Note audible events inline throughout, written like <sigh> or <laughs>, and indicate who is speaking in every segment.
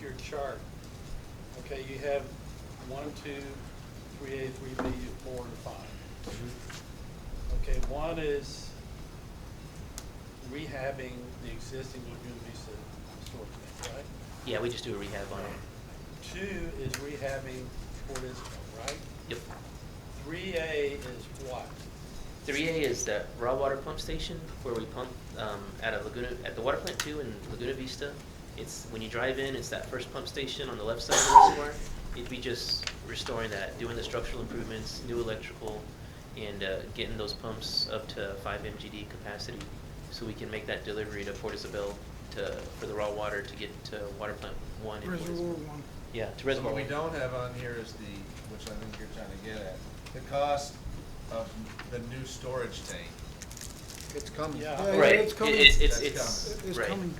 Speaker 1: your chart, okay, you have one, two, three A, three B, and four and five. Okay, one is rehabbing the existing Laguna Vista storage tank, right?
Speaker 2: Yeah, we just do a rehab on it.
Speaker 1: Two is rehabbing Port Isabel, right?
Speaker 2: Yep.
Speaker 1: Three A is what?
Speaker 2: Three A is the raw water pump station where we pump um, out of Laguna, at the water plant two in Laguna Vista. It's, when you drive in, it's that first pump station on the left side of the reservoir. It'd be just restoring that, doing the structural improvements, new electrical, and uh, getting those pumps up to five MGD capacity so we can make that delivery to Port Isabel to, for the raw water to get to water plant one. in Port Isabel.
Speaker 3: Reservoir one.
Speaker 2: Yeah, to
Speaker 4: So
Speaker 2: reservoir.
Speaker 4: What we
Speaker 2: one.
Speaker 4: don't have on here is the, which I think you're trying to get at, the cost of the new storage tank.
Speaker 5: It's coming.
Speaker 1: Yeah.
Speaker 3: Yeah,
Speaker 2: Right,
Speaker 3: it's
Speaker 2: it-
Speaker 3: coming.
Speaker 2: it's, it's,
Speaker 4: That's
Speaker 2: it's,
Speaker 4: coming.
Speaker 3: It's
Speaker 2: right.
Speaker 3: coming.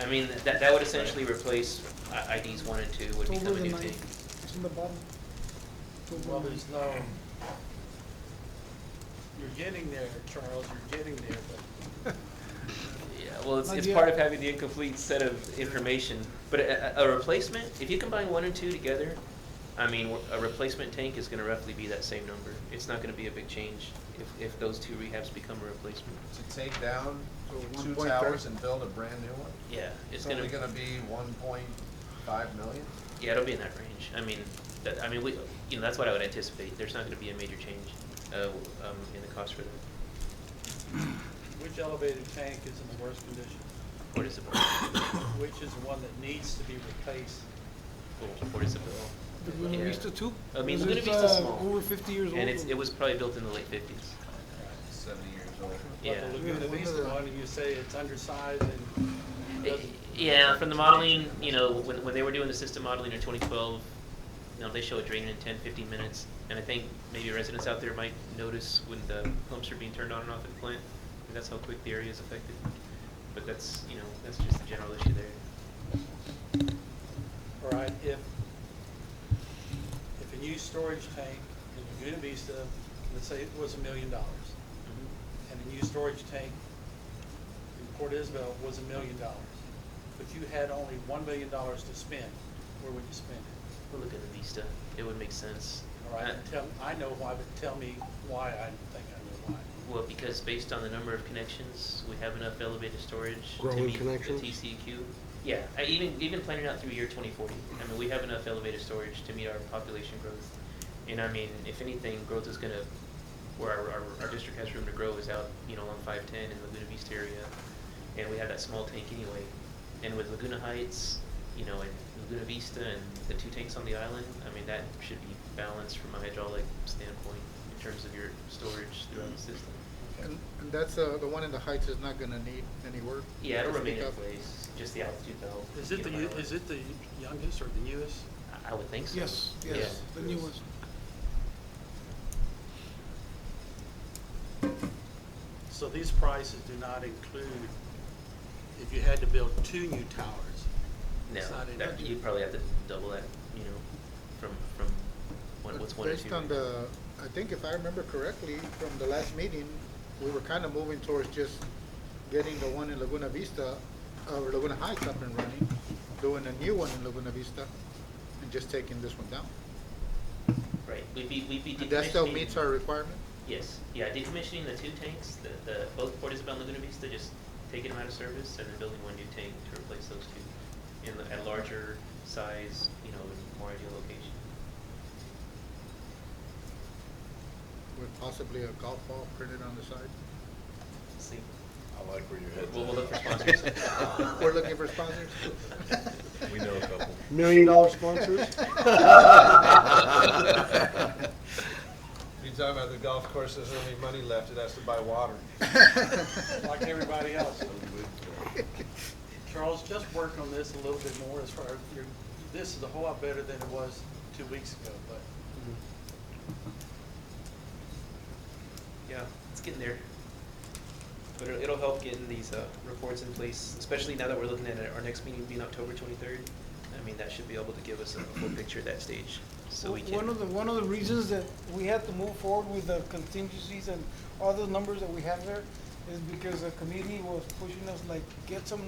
Speaker 2: I mean, that, that would essentially replace I- IDs one and two would
Speaker 3: It's
Speaker 2: become
Speaker 3: over
Speaker 2: a
Speaker 3: the
Speaker 2: new
Speaker 3: ninth.
Speaker 2: thing.
Speaker 3: It's in the bottom. It's over
Speaker 1: Well,
Speaker 3: the
Speaker 1: there's
Speaker 3: ninth.
Speaker 1: no, you're getting there, Charles, you're getting there, but
Speaker 2: Yeah, well, it's,
Speaker 3: Not
Speaker 2: it's
Speaker 3: yet.
Speaker 2: part of having the incomplete set of information, but a, a a replacement, if you combine one and two together, I mean, we're- a replacement tank is gonna roughly be that same number. It's not gonna be a big change if, if those two rehabs become a replacement.
Speaker 4: To take down
Speaker 5: So
Speaker 4: two
Speaker 5: 1.3.
Speaker 4: towers and build a brand new one?
Speaker 2: Yeah, it's
Speaker 4: It's only gonna
Speaker 2: gonna,
Speaker 4: be one point five million?
Speaker 2: yeah, it'll be in that range. I mean, that, I mean, we, you know, that's what I would anticipate. There's not gonna be a major change, uh, um, in the cost for that.
Speaker 1: which elevated tank is in the worst condition?
Speaker 2: Port Isabel.
Speaker 1: Which is the one that needs to be replaced?
Speaker 2: Cool, Port Isabel.
Speaker 3: The Buena
Speaker 2: Yeah.
Speaker 3: Vista too?
Speaker 2: I mean,
Speaker 3: Because
Speaker 2: Buena
Speaker 3: it's,
Speaker 2: Vista's
Speaker 3: uh,
Speaker 2: small.
Speaker 3: Over fifty years old.
Speaker 2: And it's, it was probably built in the late fifties.
Speaker 4: Seventy years old.
Speaker 2: Yeah.
Speaker 1: But the Laguna
Speaker 5: Yeah.
Speaker 1: Vista one, and you say it's undersized and doesn't-
Speaker 2: Yeah, from the modeling, you know, when, when they were doing the system modeling in twenty twelve, you know, they show it draining in 10, 15 minutes. And I think maybe residents out there might notice when the pumps are being turned on and off at the plant. and That's how quick the area is affected. But that's, you know, that's just the general issue there.
Speaker 1: All right, if, if a new storage tank in Laguna Vista, let's say it was a million dollars,
Speaker 2: Mm-hmm.
Speaker 1: and a new storage tank in Port Isabel was a million dollars, but you had only one million dollars to spend, where would you spend it?
Speaker 2: We'll look at the Vista. It would make sense.
Speaker 1: All right,
Speaker 2: Uh,
Speaker 1: tell, I know why, but tell me why I think I know why.
Speaker 2: Well, because based on the number of connections, we have enough elevated storage to
Speaker 5: Growing
Speaker 2: meet the
Speaker 5: connections?
Speaker 2: TCEQ. Yeah, I even, even planning out through year twenty forty, I mean, we have enough elevated storage to meet our population growth. And I mean, if anything, growth is gonna, where our, our, our district has room to grow is out, you know, on five ten in Laguna Vista area. And we have that small tank anyway. And with Laguna Heights, you know, and Laguna Vista and the two tanks on the island, I mean, that should be balanced from a hydraulic standpoint in terms of your storage throughout the system.
Speaker 5: And, and that's, uh, the one in the heights is not gonna need any work?
Speaker 2: Yeah, it'll
Speaker 5: Just
Speaker 2: remain in
Speaker 5: pick up.
Speaker 2: place, just the altitude though.
Speaker 1: Is it the,
Speaker 2: you know,
Speaker 1: yo- is it the youngest or the newest?
Speaker 2: I- I would think so.
Speaker 3: Yes, yes,
Speaker 2: Yeah.
Speaker 3: the newest.
Speaker 1: So these prices do not include if you had to build two new towers. It's not
Speaker 2: No, that,
Speaker 1: in-
Speaker 2: you'd probably have to double that, you know, from, from what,
Speaker 5: But
Speaker 2: what's one or two.
Speaker 5: Based on
Speaker 2: right?
Speaker 5: the, I think if I remember correctly, from the last meeting, we were kinda moving towards just getting the one in Laguna Vista, or Laguna Heights up and running, doing a new one in Laguna Vista, and just taking this one down.
Speaker 2: Right, we'd be, we'd be decommissioning.
Speaker 5: And that still meets our requirement?
Speaker 2: Yes, yeah, decommissioning the two tanks, the, the, both Port Isabel and Laguna Vista, just taking them out of service and then building one new tank to replace those two in a larger size, you know, in more ideal location.
Speaker 5: With possibly a golf ball printed on the side?
Speaker 2: See,
Speaker 6: I like where you're headed.
Speaker 2: we'll, we'll look for sponsors.
Speaker 5: <laughs> We're looking for sponsors?
Speaker 6: <laughs> We know a couple.
Speaker 7: Million dollar
Speaker 5: <laughs>
Speaker 7: sponsors?
Speaker 4: You talk about the golf course, there's only money left, it has to buy water.
Speaker 1: Like everybody else. Charles, just work on this a little bit more as far as your, this is a whole lot better than it was two weeks ago, but
Speaker 2: Yeah, it's getting there. But it'll, it'll help getting these, uh, reports in place, especially now that we're looking at it, our next meeting being October twenty-third. I mean, that should be able to give us a full picture at that stage, so we
Speaker 3: One
Speaker 2: can,
Speaker 3: of the, one of the reasons that we had to move forward with the contingencies and all the numbers that we have there is because the committee was pushing us like, get some